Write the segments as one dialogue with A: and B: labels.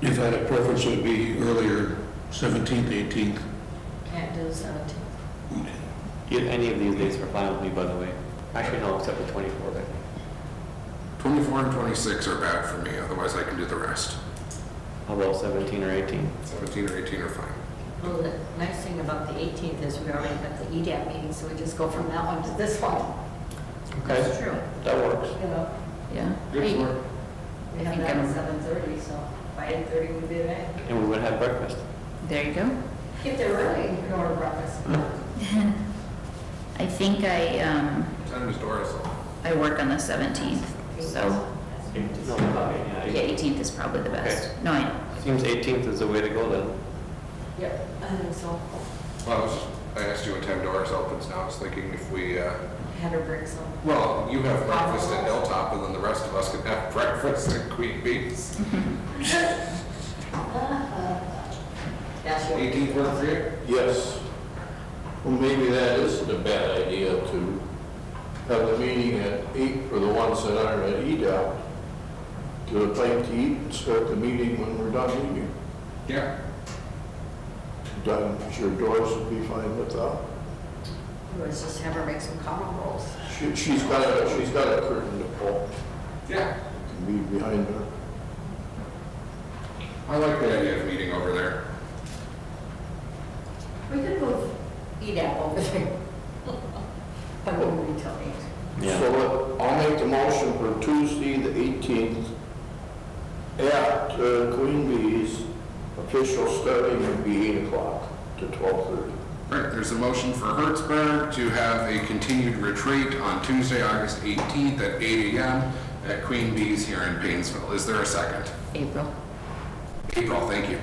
A: If I had a preference, it would be earlier, 17th, 18th.
B: Can't do the seventeenth.
C: You- Any of these dates are fine with me, by the way. Actually, no, except the 24th, I think.
D: 24 and 26 are bad for me, otherwise I can do the rest.
C: How about 17 or 18?
D: 17 or 18 are fine.
B: Well, the nice thing about the eighteenth is we already got the E EDAP meeting, so we just go from that one to this one.
C: Okay,
B: true.
C: that works.
B: You know,
E: Yeah.
D: Good work.
B: we have
E: think
B: that
E: I'm-
B: at seven thirty, so by eight thirty we'll be there.
C: And we would have breakfast.
E: There you go.
B: If they're early, you can order breakfast.
E: I think I, um,
D: What time is Doris on?
E: I work on the 17th, so,
C: No, yeah,
E: yeah, 18th is probably the best. No, I know.
C: Seems 18th is the way to go then.
B: Yep, I think so.
D: Well, I was just- I asked you what time Doris opens now, I was thinking if we, uh,
B: Had her bring some.
D: well, you have breakfast at Hilltop and then the rest of us can have breakfast at Queen Bee's.
B: That's your.
D: 18 work for you?
F: Yes. Well, maybe that isn't a bad idea to have the meeting at eight for the ones that aren't at E EDAP. Get a plate to eat and start the meeting when we're done eating.
D: Yeah.
F: Done, sure Doris would be fine with uh, that.
B: Let's just have her make some common rolls.
F: She, she's got a, she's got a curtain to pull,
D: Yeah.
F: can be behind her.
D: I like the idea of meeting over there.
B: We could move E EDAP over there. But we'll be telling.
C: Yeah.
F: So uh, I'll make the motion for Tuesday, the 18th, at uh, Queen Bee's. Official starting would be 8 o'clock to 12:30.
D: Right, there's a motion for Hertzberg to have a continued retreat on Tuesday, August 18th at 8 AM at Queen Bee's here in Painesville. Is there a second?
E: April.
D: April, thank you.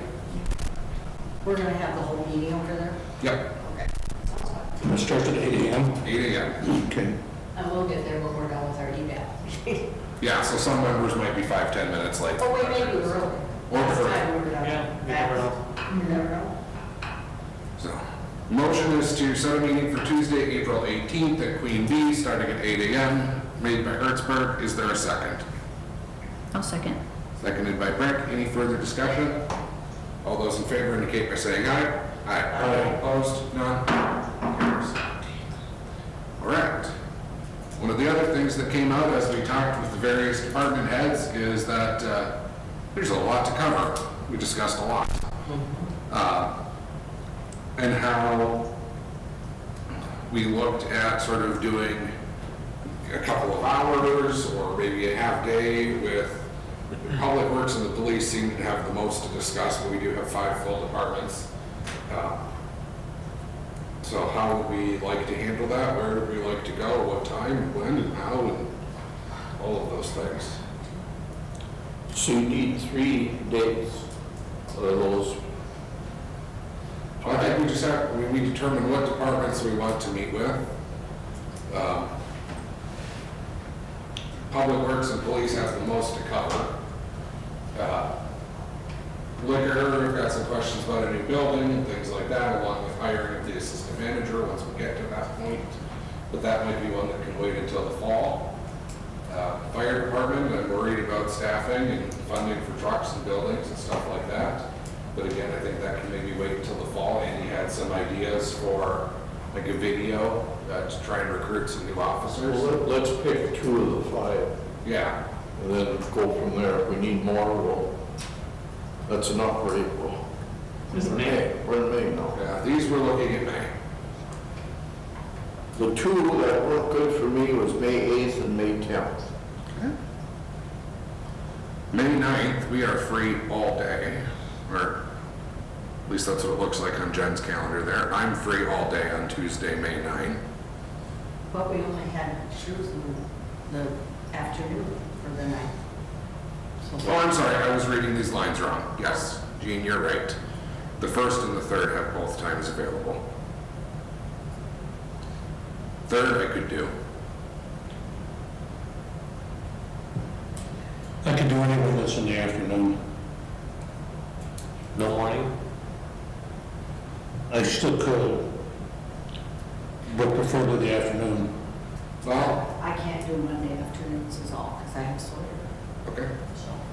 B: We're gonna have the whole meeting over there.
D: Yep,
B: Okay.
A: It starts at 8 AM.
D: 8 AM.
A: Okay.
B: And we'll get there when we're done with our EDAP.
D: Yeah, so some members might be five, ten minutes late.
B: Oh, wait, maybe we're early. Last time we were done. You never know.
D: So, motion is to set a meeting for Tuesday, April 18th at Queen Bee, starting at 8 AM, made by Hertzberg. Is there a second?
E: I'll Oh, second.
D: Seconded by Brick. Any further discussion? All those in favor indicate by saying aye. Aye. Opposed? None? Carries. All right. One of the other things that came out as we talked with the various department heads is that uh, there's a lot to cover. We discussed a lot. Uh, And how we looked at sort of doing a couple of hours or maybe a half day with Public Works and the police seem to have the most to discuss, but we do have five full departments. Uh, So how would we like to handle that? Where would we like to go? What time, when, and how, and all of those things.
F: So you need three days for those.
D: I think we just have, we- we determine what departments we want to meet with. Um, Public Works and Police have the most to cover. Uh, Liquor, we've got some questions about a new building and things like that, along with hiring of the assistant manager once we get to that point. But that might be one that can wait until the fall. Uh, Fire Department, I'm worried about staffing and funding for trucks and buildings and stuff like that. But again, I think that can maybe wait until the fall. Andy had some ideas for like a video uh, to try and recruit some new officers.
F: Well, let- Let's pick two of the five
D: Yeah,
F: and then go from there. If we need more, we'll, that's enough for April. We're in We're in May now.
D: yeah, these we're looking at May.
F: The two that worked good for me was May 8th and May 10th.
D: May 9th, we are free all day, or at least that's what it looks like on Jen's calendar there. I'm free all day on Tuesday, May 9.
B: But we only had shoes in the afternoon for the night.
D: Oh, I'm sorry, I was reading these lines wrong. Yes, Gene, you're right. The first and the third have both times available. Third I could do.
A: I could do anyone that's in the afternoon.
C: No morning?
A: I still could, but prefer the afternoon.
D: Well,
B: I can't do Monday afternoons is all, because I have Sawyer,
D: okay.
B: so.